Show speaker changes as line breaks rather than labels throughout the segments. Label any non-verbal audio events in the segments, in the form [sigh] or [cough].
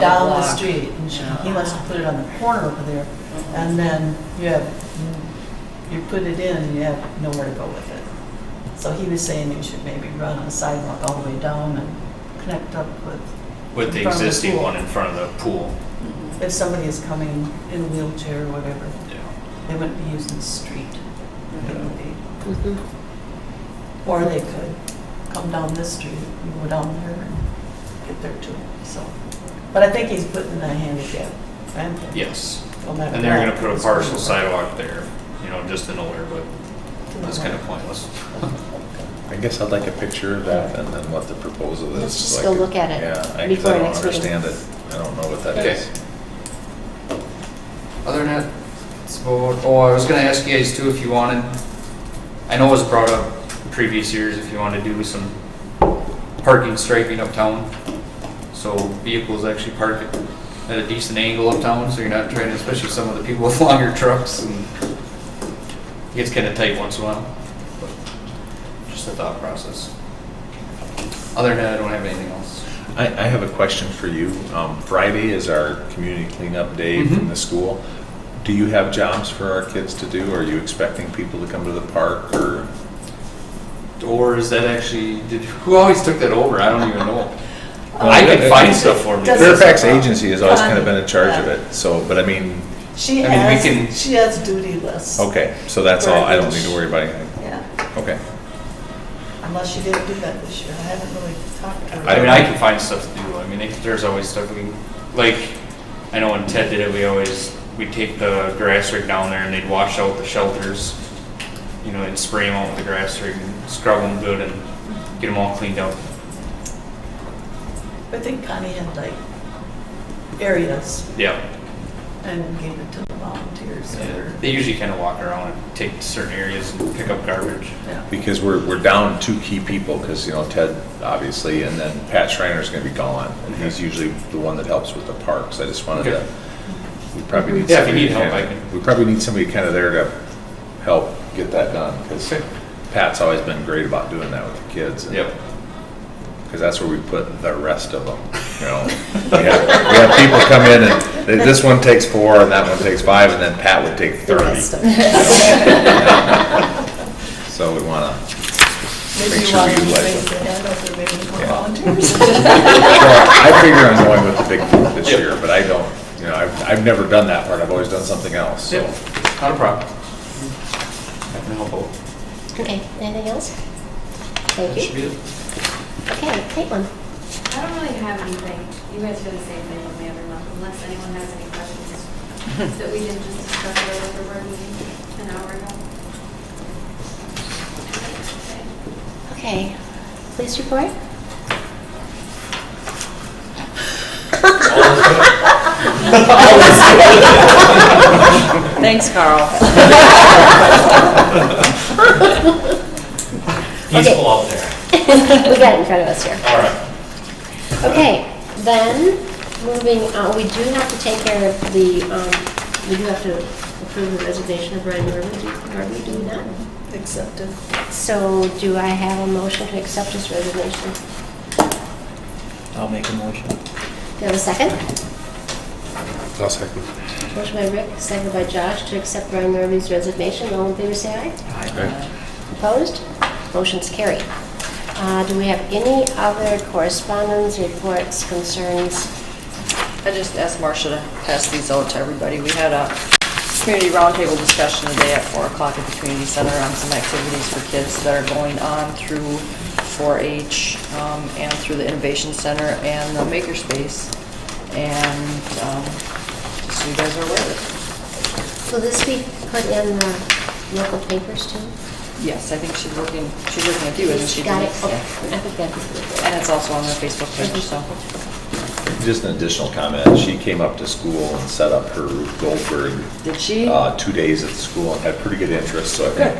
down the
block.
street, and she- he
Yeah.
wants to put it on the corner over there, and then you have, you put it in, and you have nowhere to go with it. So he was saying you should maybe run a sidewalk all the way down and connect up with,
With
In
the
front of the
existing
pool.
one in front of the pool.
if somebody is coming in a wheelchair or whatever,
Yeah.
they wouldn't be using the street. It would be-
Mhm. Mm-hmm.
Or they could come down this street and go down there and get there too, so. But I think he's putting a handicap ramp in.
Yes,
no matter
and they're gonna
what.
put a partial sidewalk there, you know, just in nowhere, but that's kind of pointless.
I guess I'd like a picture of that and then what the proposal is.
Let's just
like-
go look at it
Yeah, I- 'cause
before
I don't
next meeting.
understand it. I don't know what that
Okay.
is.
Other than that, it's about, oh, I was gonna ask you guys too if you wanted, I know it was brought up in previous years, if you wanted to do some parking striping uptown. So vehicles actually park at a decent angle uptown, so you're not trying, to especially some of the people [laughs] with longer trucks and it gets kinda tight once in a while. but Just a thought process. Other than that, I don't have anything else.
I, I have a question for you. Um, Friday is our community cleanup day from
Mhm.
the school. Do you have jobs for our kids to do? Are you expecting people to come to the park or?
Or is that actually, did, who always took that over? I don't even know. I could find stuff for me.
Does it-
Fairfax Agency has always kind of been in charge of
Connie,
it, so, but I mean,
She
I mean, we can-
has, she has duty lists.
okay, so that's all. I don't need to worry about anything.
Yeah,
Okay.
unless she didn't do that this year. I haven't really talked to her.
I mean, I can find stuff to do. I mean, it- there's always stuff we, can- like, I know when Ted did it, we always, we'd take the grass rig down there and they'd wash out the shelters, you know, and spray them out with the grass rig and scrub them good and get them all cleaned up.
I think Connie had like areas
Yeah.
and gave it to the volunteers.
yeah.
or-
They usually kind of walk around and take certain areas and pick up garbage.
Yeah.
because we're, we're down two key people, because, you know, Ted, obviously, and then Pat Schreiner's gonna be gone, and he's usually the one that helps with the parks, I just wanted
Okay.
to, we probably need
Yeah, if you
somebody.
need help,
kinda-
I can-
We probably need somebody kind of there to help get that done, because
Okay.
Pat's always been great about doing that with the kids. and-
Yep.
because that's where we put the rest of them, you know. We have, we have people come in and th- this one takes four and that one takes five and then Pat would take
The
thirty.
rest of
you
it.
know. So we wanna
Maybe
make
you
sure
want
we
to
utilize
raise
them.
the hand up there, maybe more
Yeah.
volunteers. [laughs]
Well, I figure I'm going with the big group this
Yep.
year, but I don't, you know, I've, I've never done that part, I've always done something else, so.
Not a problem. I can help out.
Okay, anything else?
That
Thank
should
you.
be it.
Okay, Caitlin.
I don't really have anything. You guys do the same thing with me every month, unless anyone has any questions that we didn't just discuss earlier for our meeting an hour ago. Okay.
Okay, police
[laughs]
report?
Thanks, Carl.
He's full out there. We got it in front of us here.
All right.
Okay, then, moving on, we do have to take care of the, um, we do have to approve the resignation of Brian Norwood. Are we doing that?
Accepted.
So do I have a motion to accept his resignation?
I'll make a motion.
Do I have a second?
I'll second.
Motion by Rick, second by Josh to accept Brian Norby's resignation. All in favor, say aye. Opposed? Motion's carried. Uh, Do we have any other correspondence, reports, concerns?
I just asked Marcia to pass these out to everybody. We had a community roundtable discussion today at 4 o'clock at the community center on some activities for kids that are going on through 4-H um, and through the Innovation Center and the Makerspace. And um, just so you guys are aware of
Will this be put in the local papers too?
it. Yes, I think she's looking, she's looking at you, isn't she?
Got it?
Yeah.
Okay, I think that'd be good.
And it's also on their Facebook page, so.
Just an additional comment, she came up to school and set up her Ruth Goldberg.
Did she?
Uh, two days at the school and had pretty good interest, so I think,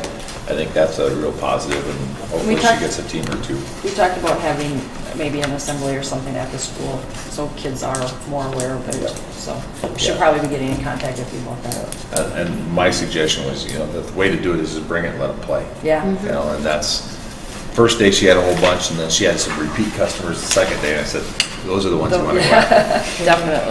I think that's a real positive and hopefully she
talked-
gets a team or two.
We talked about having maybe an assembly or something at the school, so kids are more aware of
Yeah.
it, so we should
Yeah.
probably be getting in contact with you about that.
And- And my suggestion was, you know, the way to do it is to bring it and let them play.
Yeah, Mm-hmm.
Mhm.
You know, and that's, first day she had a whole
[laughs]
bunch, and then she had some repeat customers the second day, and I said, those are the ones you want to go after.
Definitely.